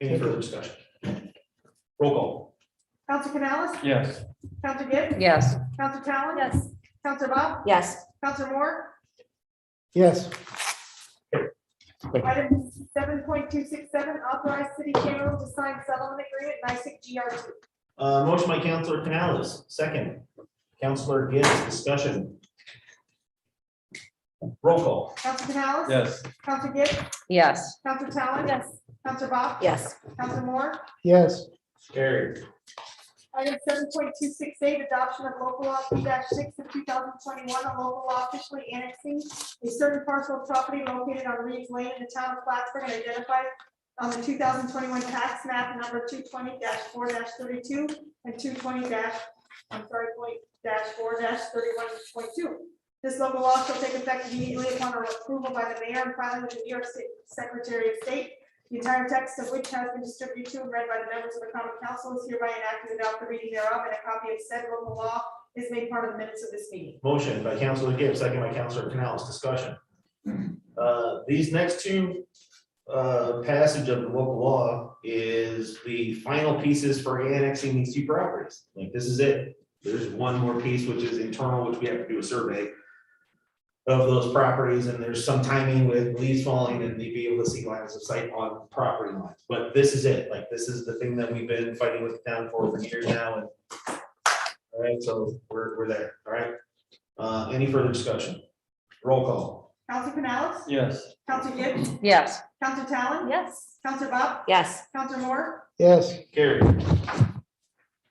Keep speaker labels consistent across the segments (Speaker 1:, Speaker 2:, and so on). Speaker 1: Any further discussion? Roll call.
Speaker 2: Counselor Canales?
Speaker 1: Yes.
Speaker 2: Counselor Gibbs?
Speaker 3: Yes.
Speaker 2: Counselor Talon? Yes. Counselor Bob?
Speaker 3: Yes.
Speaker 2: Counselor Moore?
Speaker 4: Yes,
Speaker 2: Item seven point two six seven, authorize city general to sign settlement agreement, NICIC GR two.
Speaker 1: Uh, motion by Counselor Canales, second. Counselor Gibbs, discussion. Roll call.
Speaker 2: Counselor Canales?
Speaker 1: Yes.
Speaker 2: Counselor Gibbs?
Speaker 3: Yes.
Speaker 2: Counselor Talon? Yes. Counselor Bob?
Speaker 3: Yes.
Speaker 2: Counselor Moore?
Speaker 4: yes,
Speaker 1: Carried.
Speaker 2: Item seven point two six eight, adoption of local law two six of two thousand twenty-one, a local law officially annexing a certain parcel of property located on Reeves Lane in the town of Plattsburgh and identified on the two thousand twenty-one tax map number two twenty four thirty-two and two twenty I'm sorry, point dash four thirty-one point two. This local law shall take effect immediately upon approval by the mayor and filing with the New York State Secretary of State. The entire text of which has been distributed to and read by the members of the common council is hereby enacted without the reading thereof, and a copy of said local law is made part of the minutes of this meeting.
Speaker 1: Motion by Counselor Gibbs, second by Counselor Canales, discussion. Uh, these next two, uh, passage of the local law is the final pieces for annexing these two properties. Like, this is it. There's one more piece, which is internal, which we have to do a survey of those properties, and there's some timing with leaves falling and they be able to see lines of sight on property lines. But this is it, like, this is the thing that we've been fighting with the town for for years now, and all right, so we're, we're there, all right? Uh, any further discussion? Roll call.
Speaker 2: Council Canales?
Speaker 1: Yes.
Speaker 2: Council Gibbs?
Speaker 3: Yes.
Speaker 2: Council Talon?
Speaker 3: Yes.
Speaker 2: Council Bob?
Speaker 3: Yes.
Speaker 2: Council Moore?
Speaker 4: yes,
Speaker 1: Carried.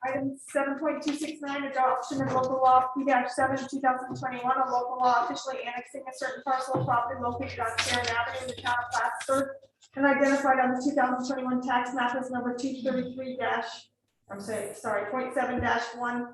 Speaker 2: Item seven point two six nine, adoption of local law P seven, two thousand twenty-one, a local law officially annexing a certain parcel of property located on Sharon Avenue in the town of Plattsburgh and identified on the two thousand twenty-one tax map as number two thirty-three I'm sorry, sorry, point seven one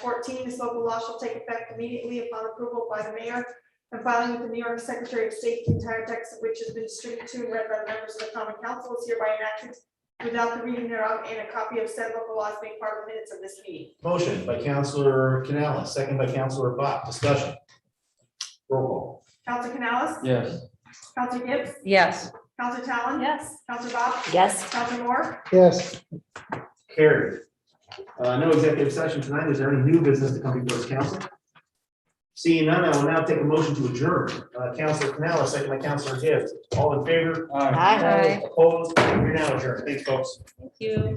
Speaker 2: fourteen. This local law shall take effect immediately upon approval by the mayor and filing with the New York Secretary of State, the entire text of which has been distributed to and read by the members of the common council is hereby enacted without the reading thereof, and a copy of said local laws being part of the minutes of this meeting.
Speaker 1: Motion by Counselor Canales, second by Counselor Bach, discussion. Roll call.
Speaker 2: Council Canales?
Speaker 1: Yes.
Speaker 2: Council Gibbs?
Speaker 3: Yes.
Speaker 2: Council Talon?
Speaker 3: Yes.
Speaker 2: Council Bob?
Speaker 3: Yes.
Speaker 2: Council Moore?
Speaker 4: yes.
Speaker 1: Carried. Uh, no executive session tonight. Is there any new business to come before this council? Seeing none, I will now take a motion to adjourn. Uh, Counselor Canales, second by Counselor Gibbs. All in favor?
Speaker 3: Aye.
Speaker 1: Opposed? We're now adjourned. Thanks, folks.
Speaker 3: Thank you.